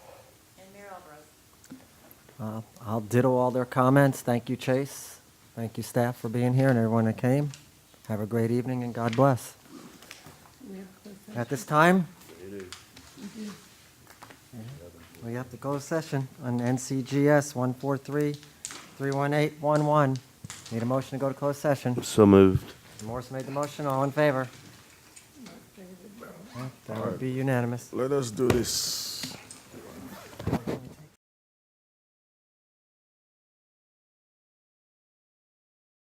Alvarez. Uh, I'll ditto all their comments. Thank you, Chase. Thank you, staff, for being here and everyone that came. Have a great evening and God bless. At this time, we have to close session on NCGS 143-31811. Need a motion to go to closed session. So moved. Morse made the motion. All in favor? Yeah, That would be unanimous. Let us do this.